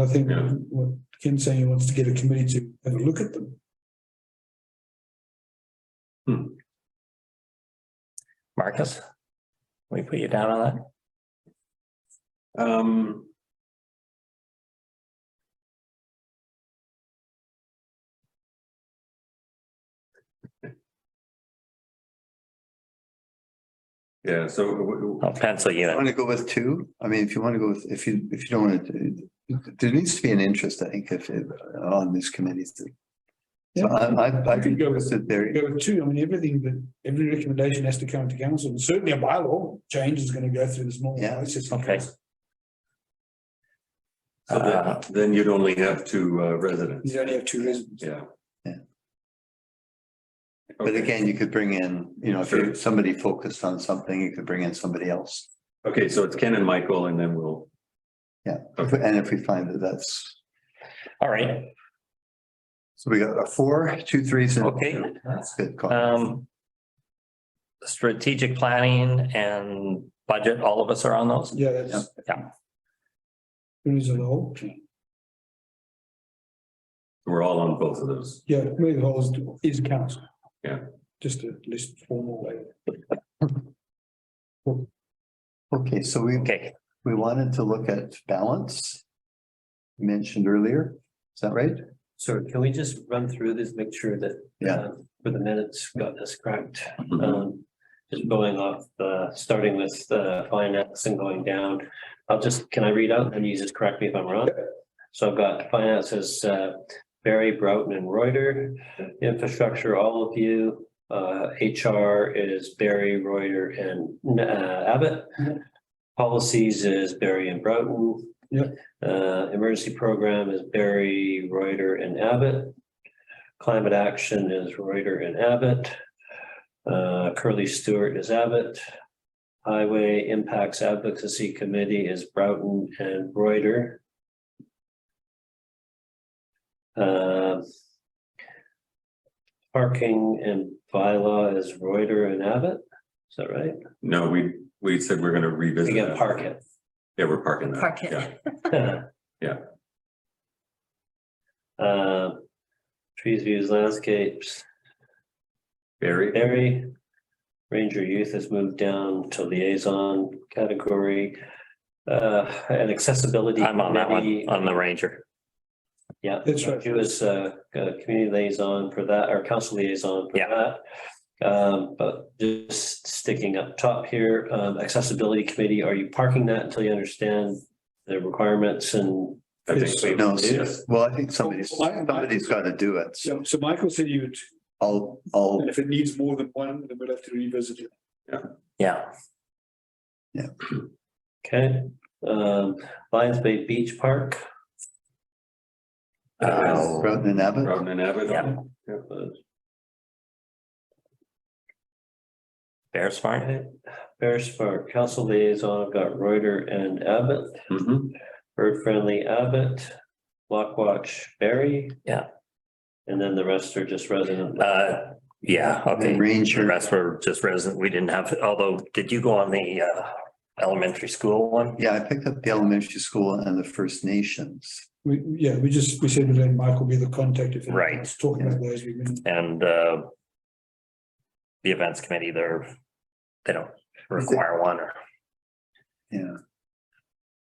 I think Yeah. what Ken's saying, he wants to get a committee to have a look at them. Marcus? We put you down on that? Um. Yeah, so uh, w- w- I'll pencil you in. Want to go with two? I mean, if you want to go with, if you, if you don't want to, there needs to be an interest, I think, if, if, on these committees. So I, I, I You can think go it with- was there, Go two, I mean, everything that, every recommendation has to come to council, and certainly a bylaw change is gonna go through this normal Yeah. process. Okay. so Uh, then, then you'd only have two uh, residents, You only have two residents. yeah. Yeah. but Okay. again, you could bring in, you know, if you, Sure. somebody focused on something, you could bring in somebody else. Okay, so it's Ken and Michael and then we'll, If- And if we find that that's, All right, so we got a four, two threes and. Okay. two. That's good. call. um. Strategic planning and budget, all of us are on those? Yeah, that's. Yeah. There is a whole, we're all on both of those. yeah, maybe the whole is, is council. Yeah. Just a less formal way. Okay, so we, Okay, we wanted to look at balance. Mentioned earlier, is that right? So can we just run through this, make sure that. Yeah. uh, For the minutes, got this correct. Um, just going off, uh, starting with the finance and going down. I'll just, can I read out and you just correct me if I'm wrong? So I've got finances, uh, Barry Broughton and Reuter, infrastructure, all of you. Uh, HR is Barry, Reuter and uh, Abbott. Policies is Barry and Broughton. Uh, emergency program is Barry, Reuter and Abbott. Climate action is Reuter and Abbott. Uh, Curly Stewart is Abbott. Highway Impacts Advocacy Committee is Broughton and Reuter. Uh, Parking and bylaw is Reuter and Abbott. Is that right? No, we, we said we're gonna revisit. Again, that. park it. Yeah, we're parking that. Park it. Yeah. Yeah. Uh, trees, views, landscapes, Barry, Barry. Ranger youth has moved down to liaison category. Uh, and accessibility. I'm on that one, committee, on the ranger. Yeah. That's right. He was uh, uh, community liaison for that, or council liaison for Yeah. that. Um, but just sticking up top here, um, accessibility committee, are you parking that until you understand the requirements and? I think so. No, Yes. well, I think somebody's, Well, I- somebody's got to do it. So So, so Michael said you would, I'll, I'll and if it needs more than one, then we'll have to revisit it. Yeah, Okay, um, Lions Bay Beach Park, Oh. Broughton and Abbott, Robin and Abbott. Yeah. uh, Bear Smart, okay. Bear Spark, Council Liaison, I've got Reuter and Abbott, Mhm. Bird Friendly Abbott, Block Watch Berry. Yeah. And then the rest are just resident. uh, yeah, okay. The Ranger. rest were just resident, we didn't have, although, did you go on the uh elementary school one? Yeah, I picked up the elementary school and the First Nations. We, yeah, we just, we said we'd let Michael be the contact if. Right. Let's Talk about those, we've been. and uh. The events committee, they're, they don't require one or, Yeah,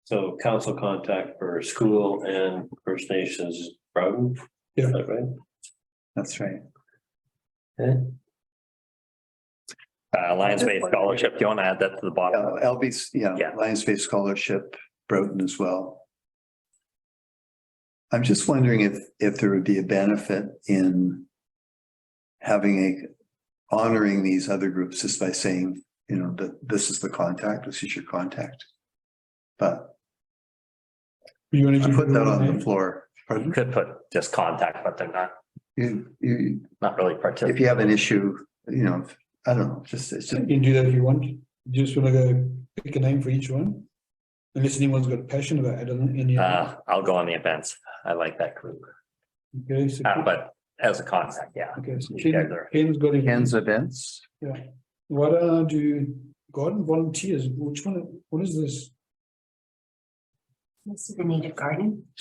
So council contact for school and First Nations, Broughton. Yeah. Is that Right, that's right. uh, Lions Bay Scholarship, do you want to add that to the Yeah, bottom? LB's, yeah, Yeah. Lions Bay Scholarship, Broughton as well. I'm just wondering if, if there would be a benefit in having a, honoring these other groups just by saying, you know, that this is the contact, this is your contact. But You want I to put that on the floor. Pardon? You could put just contact, but they're not, You, you, not really if participating. you have an issue, you know, I don't know, just, it's just. You can do that if you want. You Just wanna go pick a name for each one. Unless anyone's got passion about it, I don't, any. Uh, I'll go on the events. I like that group, Okay, so. uh, but as a contact, yeah. Okay, so you guys Ken- are- Ken's got it. events. Why don't I do garden volunteers? Which one, what is this? This is the native garden.